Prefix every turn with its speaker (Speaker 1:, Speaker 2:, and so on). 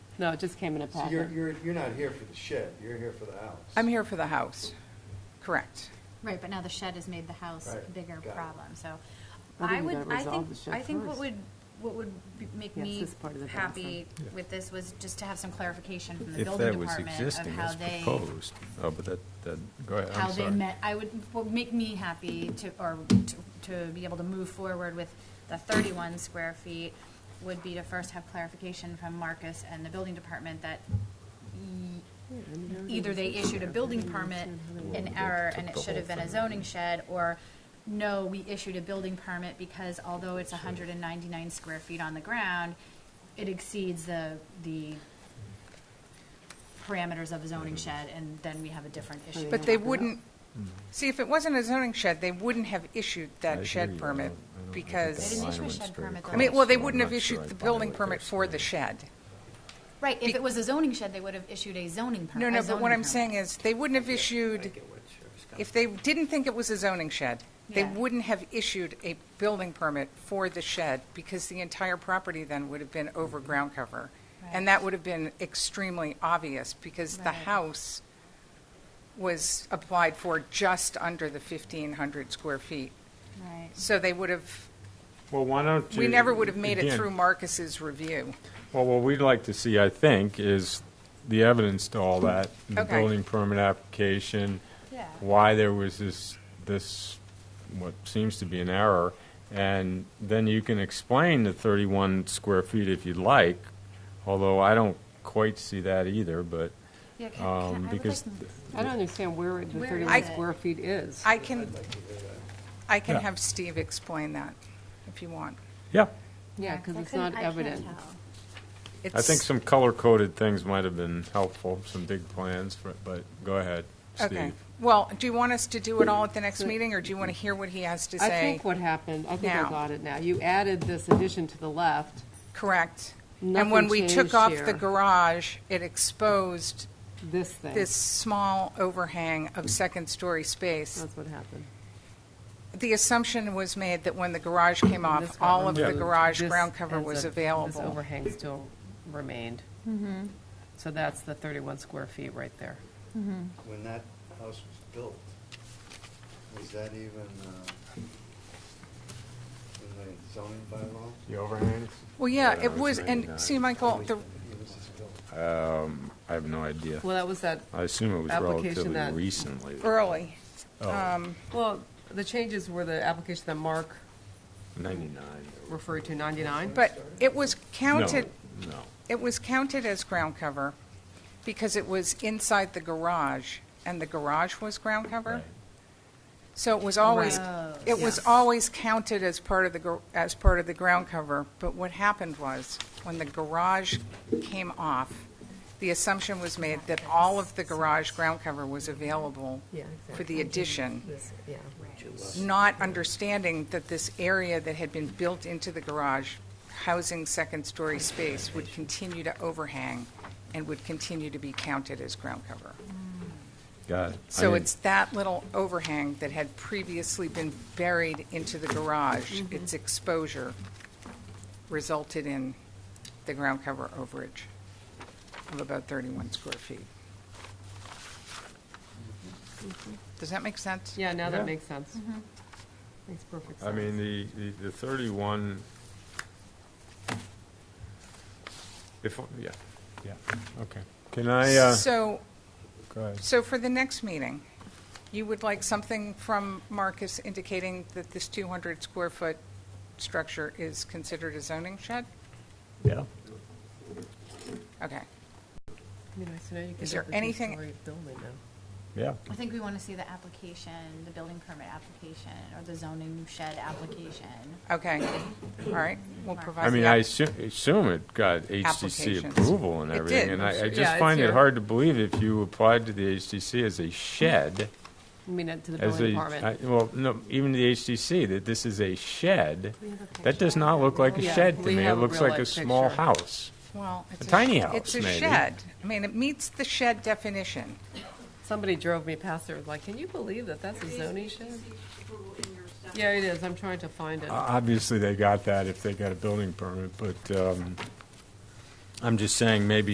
Speaker 1: No, it just came in a
Speaker 2: So you're,
Speaker 1: packet.
Speaker 2: you're, you're not here for the shed, you're here for the house.
Speaker 3: I'm here for the house, correct.
Speaker 4: Right, but now the shed has made the house a
Speaker 2: Right,
Speaker 4: bigger
Speaker 2: got it.
Speaker 4: problem, so.
Speaker 1: I
Speaker 4: I
Speaker 1: think we
Speaker 4: would,
Speaker 1: gotta
Speaker 4: I
Speaker 1: resolve
Speaker 4: think,
Speaker 1: the shed
Speaker 4: I think what
Speaker 1: first.
Speaker 4: would, what would be- make
Speaker 1: Yes,
Speaker 4: me
Speaker 1: this part of the
Speaker 4: happy
Speaker 5: Yeah.
Speaker 4: with this was just to have some clarification from the
Speaker 5: If
Speaker 4: building
Speaker 5: that was
Speaker 4: department of
Speaker 5: existing
Speaker 4: how
Speaker 5: as
Speaker 4: they,
Speaker 5: proposed, oh, but that, that, go ahead, I'm sorry.
Speaker 4: how they met, I would, what would make me happy to, or to, to be able to move forward with the thirty-one square feet would be to first have clarification from Marcus and the building department that y- either they issued a building permit in error and it should have been a zoning shed, or no, we issued a building permit because although it's hundred and ninety-nine square feet on the ground, it exceeds the, the parameters of a zoning shed, and then we have a different issue.
Speaker 3: But they wouldn't, see, if it wasn't a zoning shed, they wouldn't have issued
Speaker 5: I hear
Speaker 3: that
Speaker 5: you.
Speaker 3: shed
Speaker 5: I
Speaker 3: permit
Speaker 5: don't- I don't- I think
Speaker 4: They
Speaker 5: the
Speaker 3: because,
Speaker 4: didn't
Speaker 5: line
Speaker 4: issue a
Speaker 5: went
Speaker 4: shed
Speaker 5: straight
Speaker 4: permit, though.
Speaker 3: I mean, well, they
Speaker 5: across, so
Speaker 3: wouldn't
Speaker 5: I'm
Speaker 3: have
Speaker 5: not sure
Speaker 3: issued
Speaker 5: I
Speaker 3: the
Speaker 5: follow
Speaker 3: building
Speaker 5: what
Speaker 3: permit
Speaker 5: they're
Speaker 3: for the
Speaker 5: saying.
Speaker 3: shed.
Speaker 4: Right, if it was a zoning shed, they would have issued a zoning permit.
Speaker 3: No, no, but what I'm saying is, they wouldn't have issued, if they didn't think it was a zoning shed, they
Speaker 4: Yeah.
Speaker 3: wouldn't have issued a building permit for the shed because the entire property then would have been over ground cover.
Speaker 4: Mm-hmm. Right.
Speaker 3: And that would have been extremely obvious because the
Speaker 4: Right.
Speaker 3: house was applied for just under the 1,500 square feet.
Speaker 4: Right.
Speaker 3: So they would have,
Speaker 5: Well, why don't you?
Speaker 3: we never would have made it
Speaker 5: again,
Speaker 3: through Marcus's review.
Speaker 5: Well, what we'd like to see, I think, is the evidence to all that, the
Speaker 3: Okay.
Speaker 5: building permit application,
Speaker 4: Yeah.
Speaker 5: why there was this, this, what seems to be an error, and then you can explain the 31 square feet if you'd like, although I don't quite see that either, but,
Speaker 4: Yeah, can- can- I would
Speaker 5: um,
Speaker 4: like
Speaker 5: because
Speaker 4: to-
Speaker 1: I don't understand where the
Speaker 4: Where
Speaker 1: 31
Speaker 4: is it?
Speaker 1: square feet is.
Speaker 3: I can, I can
Speaker 5: Yeah.
Speaker 3: have Steve explain that if you want.
Speaker 5: Yeah,
Speaker 1: Yeah, because
Speaker 4: I
Speaker 1: it's
Speaker 4: couldn't-
Speaker 1: not
Speaker 4: I can't
Speaker 1: evident.
Speaker 4: tell.
Speaker 5: I think
Speaker 3: It's-
Speaker 5: some color-coded things might have been helpful, some big plans, for- but go ahead,
Speaker 3: Okay.
Speaker 5: Steve.
Speaker 3: Well, do you want us to do it all at the next
Speaker 1: So-
Speaker 3: meeting, or do you want to hear what he has to
Speaker 1: I
Speaker 3: say?
Speaker 1: think what happened, I think I
Speaker 3: Now.
Speaker 1: got it now. You added this addition to the left.
Speaker 3: Correct. And
Speaker 1: Nothing
Speaker 3: when we took
Speaker 1: changed
Speaker 3: off
Speaker 1: here.
Speaker 3: the garage, it exposed
Speaker 1: This thing.
Speaker 3: this small overhang of second-story space.
Speaker 1: That's what happened.
Speaker 3: The assumption was made that when the garage came
Speaker 1: This
Speaker 3: off,
Speaker 1: got
Speaker 3: all of the
Speaker 1: removed.
Speaker 3: garage
Speaker 1: This
Speaker 3: ground cover
Speaker 1: ends
Speaker 3: was
Speaker 1: up- This
Speaker 3: available. Mm-hmm.
Speaker 1: overhang still remained. So that's the 31 square feet right there.
Speaker 2: When that house was built, was that even, uh, in the zoning bylaw?
Speaker 5: The overhangs?
Speaker 3: Well, yeah,
Speaker 5: Yeah,
Speaker 3: it
Speaker 5: it's
Speaker 3: was, and
Speaker 5: 99.
Speaker 3: see, Michael, the,
Speaker 2: When was this built?
Speaker 5: I have no idea.
Speaker 1: Well, that was that,
Speaker 5: I assume it was
Speaker 1: Application
Speaker 5: relatively
Speaker 1: that-
Speaker 5: recently.
Speaker 3: early,
Speaker 1: well, the changes were the application that Mark
Speaker 5: 99.
Speaker 1: referred to, 99?
Speaker 3: but it was counted,
Speaker 5: No, no.
Speaker 3: it was counted as ground cover because it was inside the garage, and the garage was ground cover.
Speaker 5: Right.
Speaker 3: So it was always,
Speaker 4: Right.
Speaker 3: it was
Speaker 1: Yes.
Speaker 3: always counted as part of the, gar- as part of the ground cover, but what happened was, when the garage came off, the assumption was made that all of the garage ground cover was available
Speaker 1: Yeah,
Speaker 3: for the addition,
Speaker 1: Yeah.
Speaker 3: not understanding that this area that had been built into the garage, housing second-story space, would continue to overhang and would continue to be counted as ground cover.
Speaker 5: Got it. I
Speaker 3: So
Speaker 5: didn't-
Speaker 3: it's that little overhang that had previously been buried into the garage. Its exposure resulted in the ground cover overage of about 31 square feet. Does that make sense?
Speaker 1: Yeah, now
Speaker 5: Yeah.
Speaker 1: that makes sense. Makes perfect sense.
Speaker 5: I mean, the, the- the 31, if, yeah, yeah, okay. Can I, uh,
Speaker 3: So,
Speaker 5: go ahead.
Speaker 3: so for the next meeting, you would like something from Marcus indicating that this 200 square foot structure is considered a zoning shed?
Speaker 5: Yeah.
Speaker 3: Okay.
Speaker 1: I mean, I see now you could
Speaker 3: Is there
Speaker 1: have a
Speaker 3: anything-
Speaker 1: two-story building now.
Speaker 5: Yeah.
Speaker 4: I think we want to see the application, the building permit application, or the zoning shed application.
Speaker 3: Okay, all right, we'll provide.
Speaker 5: I mean,
Speaker 3: the
Speaker 5: I
Speaker 3: app-
Speaker 5: assu- assume it got HTC
Speaker 3: Applications.
Speaker 5: approval and
Speaker 3: It
Speaker 5: everything.
Speaker 3: did.
Speaker 5: And I- I
Speaker 1: Yeah,
Speaker 5: just
Speaker 1: it's
Speaker 5: find it
Speaker 1: here.
Speaker 5: hard to believe if you applied to the HTC as a shed,
Speaker 1: I mean, uh, to the
Speaker 5: as
Speaker 1: building
Speaker 5: a,
Speaker 1: department.
Speaker 5: I- well, no, even the HTC, that this is a shed, that does not look like a
Speaker 1: Yeah,
Speaker 5: shed to
Speaker 1: we
Speaker 5: me. It
Speaker 1: have a
Speaker 5: looks
Speaker 1: real
Speaker 5: like a
Speaker 1: life
Speaker 5: small
Speaker 1: picture.
Speaker 5: house.
Speaker 3: Well, it's
Speaker 5: a tiny
Speaker 3: sh-
Speaker 5: house,
Speaker 3: It's a
Speaker 5: maybe.
Speaker 3: shed. I mean, it meets the shed definition.
Speaker 1: Somebody drove me past there, was like, can you believe that that's a zoning shed? Yeah, it is, I'm trying to find it.
Speaker 5: O- Obviously, they got that if they got a building permit, but um, I'm just saying, maybe